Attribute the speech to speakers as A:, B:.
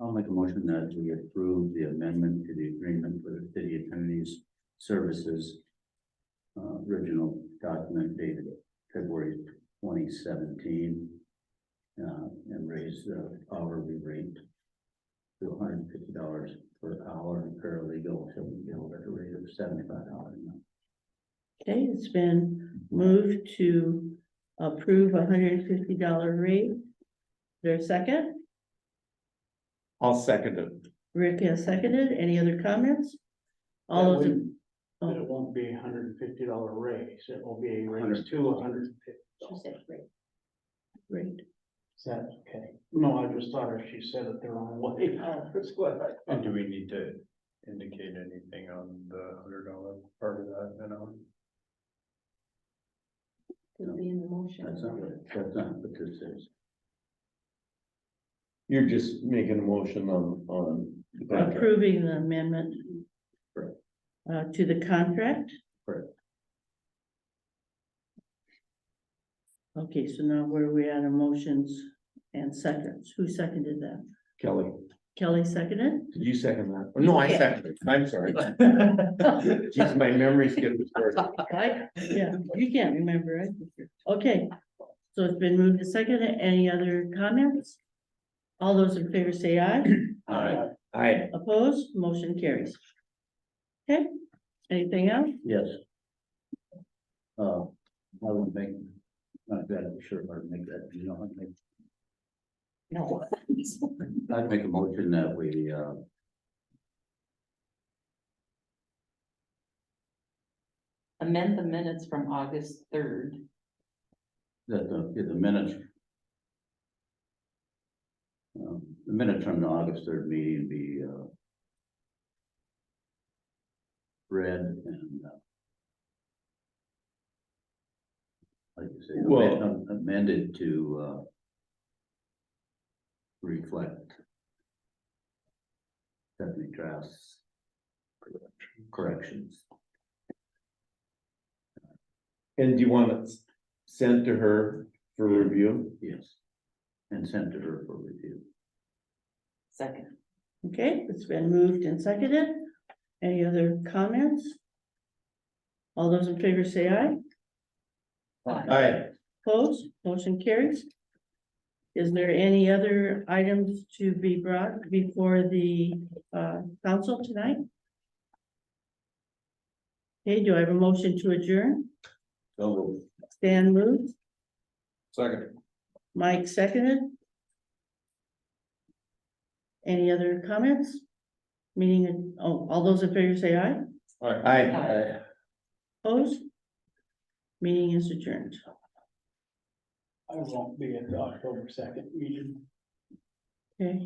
A: I'll make a motion that we approve the amendment to the agreement for the city attorney's services. Uh, original document dated February twenty seventeen. Uh, and raise the hourly rate. To hundred and fifty dollars per hour and paralegal shall be billed at a rate of seventy-five dollars.
B: Okay, it's been moved to approve a hundred and fifty dollar rate. Is There a second?
C: I'll second it.
B: Rick has seconded. Any other comments? All of them.
D: But it won't be a hundred and fifty dollar raise, it will be a raise to a hundred and fifty.
B: Great.
D: Is that okay? No, I just thought her, she said it the wrong way. That's what I thought.
E: And do we need to indicate anything on the hundred dollar part of that, you know?
A: Could
B: be in the motion.
A: That's not what, that's not what this is.
C: You're just making a motion on, on. the contract.
B: Approving the amendment.
A: Correct.
B: Uh, to the contract?
A: Correct.
B: Okay, so now where are we at on motions and seconds? Who seconded that?
C: Kelly,
B: Kelly seconded?
C: did you second that? No, I
B: Yeah.
C: seconded it. I'm sorry. Jeez, my memory's getting worse.
B: Right? Yeah, you can't remember it. Okay, so it's been moved to second. Any other comments? All those in favor say aye.
C: Aye. I,
B: Opposed, motion carries. Okay, anything else?
A: Yes. Uh, I would make, not that I'm sure if I'd make that, you know, I'd make
B: No.
A: I'd make a motion that we, uh.
F: amend the minutes from August third.
A: That the, get the minutes. Um, the minutes from the August third meeting be, uh. Read and, uh. Like you say,
C: Well-
A: amend- amended to, uh. Reflect. Stephanie Trask's. Corrections.
C: and do you want it sent to her for review?
A: Yes. And sent to her for review.
F: Second,
B: Okay, it's been moved and seconded. Any other comments? All those in favor say aye.
C: Aye.
B: Opposed, motion carries. Is there any other items to be brought before the uh council tonight? Okay, do I have a motion to adjourn?
A: So.
B: Stan moved,
E: Second.
B: Mike seconded. Any other comments? Meaning, oh, all those in favor say aye,
C: Aye.
F: Aye.
B: opposed? Meeting is adjourned.
D: I won't be at the October second meeting.